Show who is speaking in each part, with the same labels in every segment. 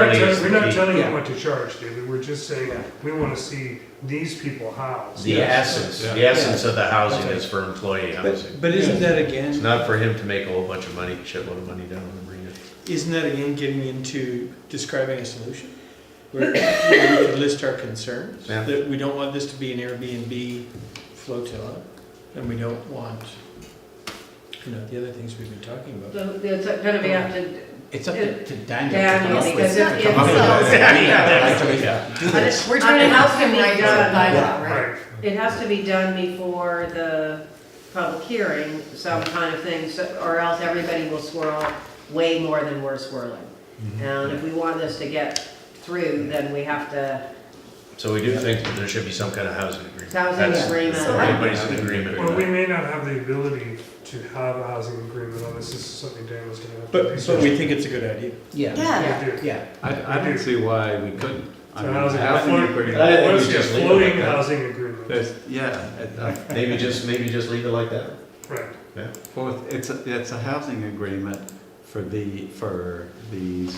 Speaker 1: We're not
Speaker 2: Really
Speaker 1: telling-
Speaker 2: is
Speaker 1: we're not
Speaker 2: the-
Speaker 1: telling
Speaker 3: yeah.
Speaker 1: you what to charge, David, we're just saying, we wanna see these people housed.
Speaker 2: The essence, the
Speaker 3: Yes.
Speaker 2: essence of the housing is for employee housing.
Speaker 3: But, but isn't that
Speaker 2: It's
Speaker 3: again,
Speaker 2: not for him to make a whole bunch of money, shitload of money down in the marina.
Speaker 3: isn't that again getting into describing a solution? Where where we could list our concerns,
Speaker 2: Yeah.
Speaker 3: that we don't want this to be an Airbnb flotilla, and we don't want, you know, the other things we've been talking about.
Speaker 4: So it's gonna be up to
Speaker 5: It's up to to Daniel to come
Speaker 4: Daniel,
Speaker 5: up
Speaker 4: because
Speaker 5: with,
Speaker 4: if,
Speaker 5: to
Speaker 4: if
Speaker 5: come up with
Speaker 4: so.
Speaker 5: that. Do this.
Speaker 4: We're
Speaker 6: trying to help him right now by law,
Speaker 1: Right,
Speaker 4: It has to be done before the public hearing, some kind of thing, so- or else everybody will swirl way more than we're swirling. And if we want this to get through, then we have to,
Speaker 2: So we do think that there should be some kind of housing agreement.
Speaker 4: Housing
Speaker 2: That's-
Speaker 4: agreement.
Speaker 2: that's where Everybody's in agreement.
Speaker 1: well, we may not have the ability to have a housing agreement on this, this is something Dan was gonna have. to
Speaker 3: But, but we think it's a good idea.
Speaker 5: Yeah,
Speaker 6: Yeah.
Speaker 1: research. We do.
Speaker 5: yeah.
Speaker 7: I, I don't see why we couldn't. I
Speaker 1: So
Speaker 7: mean,
Speaker 1: how's it-
Speaker 7: housing
Speaker 1: I-
Speaker 2: I
Speaker 7: agreement,
Speaker 2: think we
Speaker 1: What's
Speaker 2: just
Speaker 1: the
Speaker 2: leave it
Speaker 1: floating
Speaker 2: like that.
Speaker 1: housing agreement?
Speaker 7: there's, yeah, it- uh,
Speaker 2: Maybe just, maybe just leave it like that.
Speaker 1: Right,
Speaker 7: well, it's, a- it's a housing agreement for the, for these,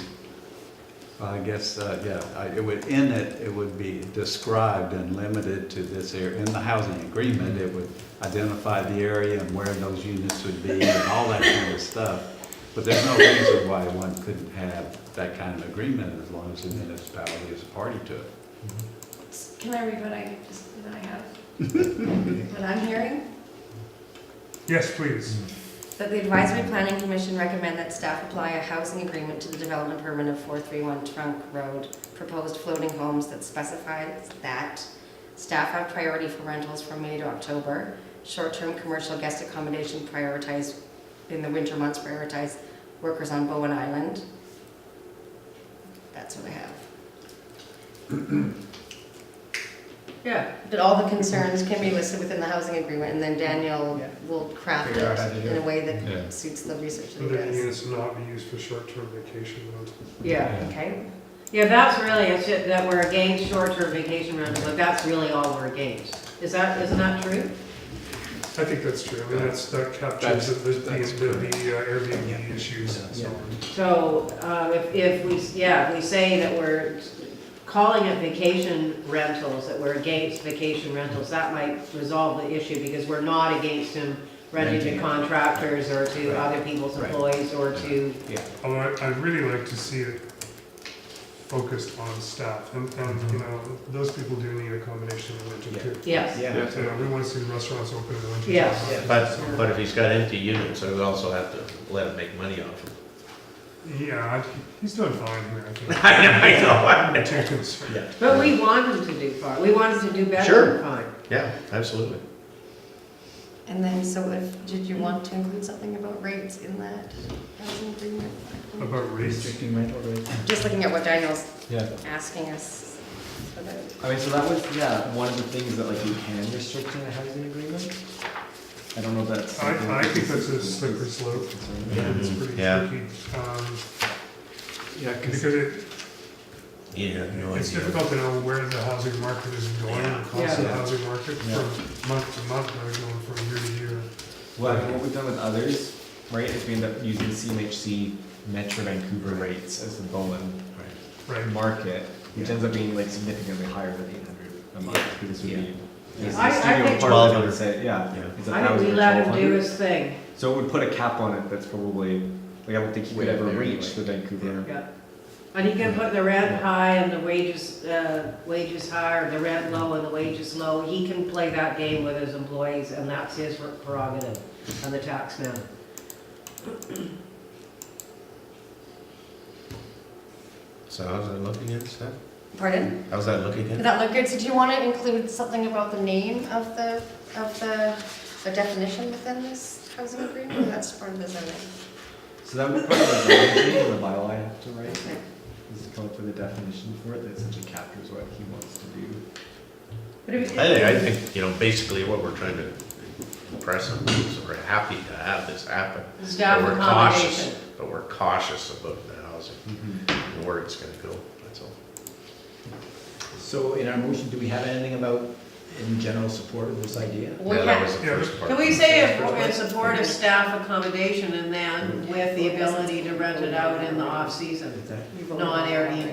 Speaker 7: I guess, uh, yeah, I- it would, in it, it would be described and limited to this area. In the housing agreement, it would identify the area and where those units would be and all that kind of stuff. But there's no reason why one couldn't have that kind of agreement as long as the municipality is a party to it.
Speaker 6: Can I read what I just, what I have? What I'm hearing,
Speaker 1: yes, please,
Speaker 6: that the advisory planning commission recommend that staff apply a housing agreement to the development permit of four three one trunk road, proposed floating homes that specifies that staff have priority for rentals from May to October, short-term commercial guest accommodation prioritized, in the winter months prioritized workers on Bowen Island. That's what I have.
Speaker 4: yeah.
Speaker 6: But all the concerns can be listed within the housing agreement, and then Daniel
Speaker 5: Yeah.
Speaker 6: will craft
Speaker 5: Figure out how to
Speaker 6: it
Speaker 5: do
Speaker 6: in a
Speaker 5: it.
Speaker 6: way
Speaker 7: Yeah.
Speaker 6: that suits the research that
Speaker 1: so
Speaker 6: he
Speaker 1: that
Speaker 6: does.
Speaker 1: units will not be used for short-term vacation rentals.
Speaker 4: Yeah,
Speaker 6: Okay,
Speaker 4: yeah, that's really, a shit that we're against short-term vacation rentals, but that's really all we're against. Is that, isn't that true?
Speaker 1: I think that's true, I mean, that's, that captures
Speaker 7: That's-
Speaker 1: the, the,
Speaker 7: that's
Speaker 1: the the, uh, Airbnb issues and so
Speaker 5: Yeah.
Speaker 1: on.
Speaker 4: So, um, if, if we, yeah, if we say that we're calling it vacation rentals, that we're against vacation rentals, that might resolve the issue because we're not against them renting
Speaker 5: Renting
Speaker 4: to
Speaker 5: it.
Speaker 4: contractors or to
Speaker 5: Right.
Speaker 4: other people's
Speaker 5: Right.
Speaker 4: employees or to,
Speaker 1: Although I- I'd really like to see it focused on staff, and,
Speaker 2: Mm-hmm.
Speaker 1: and, you know, those people do need accommodation in the winter too.
Speaker 4: yes,
Speaker 5: Yeah.
Speaker 1: So, you know, we want to see restaurants open in the winter.
Speaker 4: Yes.
Speaker 1: time.
Speaker 2: But, but if he's got empty units, I would also have to let him make money off them.
Speaker 1: Yeah, I- he's doing fine here, I think.
Speaker 2: I know, I know, I
Speaker 1: I'm
Speaker 2: know.
Speaker 1: not too concerned.
Speaker 4: but we want them to do fine, we want them to do better
Speaker 2: Sure.
Speaker 4: than fine.
Speaker 2: Yeah, absolutely.
Speaker 6: and then, so if, did you want to include something about rates in that housing agreement?
Speaker 1: About race,
Speaker 5: Restricting rental rates.
Speaker 6: Just looking at what Daniel's
Speaker 5: Yeah.
Speaker 6: asking us about.
Speaker 5: I mean, so that was, yeah, one of the things that like you can restrict in a housing agreement. I don't know if that's.
Speaker 1: I,
Speaker 5: something
Speaker 1: I
Speaker 5: that
Speaker 1: think that's
Speaker 5: is-
Speaker 1: a slippery slope,
Speaker 5: concern.
Speaker 1: Yeah, it's pretty
Speaker 2: Yeah.
Speaker 1: tricky, um,
Speaker 7: Yeah, 'cause-
Speaker 1: because it,
Speaker 2: You have no
Speaker 1: it's
Speaker 2: idea.
Speaker 1: difficult to know where the housing market is going, the cost of the
Speaker 5: Yeah.
Speaker 1: housing market
Speaker 5: Yeah.
Speaker 1: from month to month, or going from year to year.
Speaker 5: Well, I mean, what we've done with others, right, is we end up using CMHC Metro Vancouver rates as the Bowen
Speaker 1: Right,
Speaker 5: market, which ends up being like significantly higher than eight hundred a month, because we, this
Speaker 4: I- I
Speaker 5: studio
Speaker 4: think-
Speaker 5: apartment would say, yeah.
Speaker 2: Yeah.
Speaker 5: it's
Speaker 4: I think we
Speaker 5: 1,000 or
Speaker 4: let him do
Speaker 5: 1,200.
Speaker 4: his thing,
Speaker 5: So it would put a cap on it that's probably, like, I don't think he
Speaker 3: Way
Speaker 5: could
Speaker 3: up
Speaker 5: ever
Speaker 3: there
Speaker 5: reach the Vancouver.
Speaker 4: yeah. And he can put the rent high and the wages, uh, wages high, or the rent low and the wages low, he can play that game with his employees, and that's his prerogative, and the taxman.
Speaker 2: So how's that looking at, Steph?
Speaker 6: Pardon?
Speaker 2: How's that looking
Speaker 6: Did
Speaker 2: at?
Speaker 6: that look good? So do you want to include something about the name of the, of the, the definition within this housing agreement? That's part of the zoning.
Speaker 5: So that would probably be the only thing in the bylaw I have to write,
Speaker 6: Okay.
Speaker 5: is to come up with a definition for it that essentially captures what he wants to do.
Speaker 4: But if-
Speaker 2: I think, I think, you know, basically what we're trying to impress on is we're happy to have this happen.
Speaker 4: Staff
Speaker 2: but we're
Speaker 4: accommodation.
Speaker 2: cautious. But we're cautious about the housing and where it's gonna go, that's all.
Speaker 5: So in our motion, do we have anything about, in general, support of this idea?
Speaker 4: We
Speaker 2: Yeah, that was
Speaker 4: can,
Speaker 2: the
Speaker 1: Yeah,
Speaker 2: first part.
Speaker 4: can we say if we're in support of staff accommodation and then with the ability to rent it out in the off-season, non-Airbnb?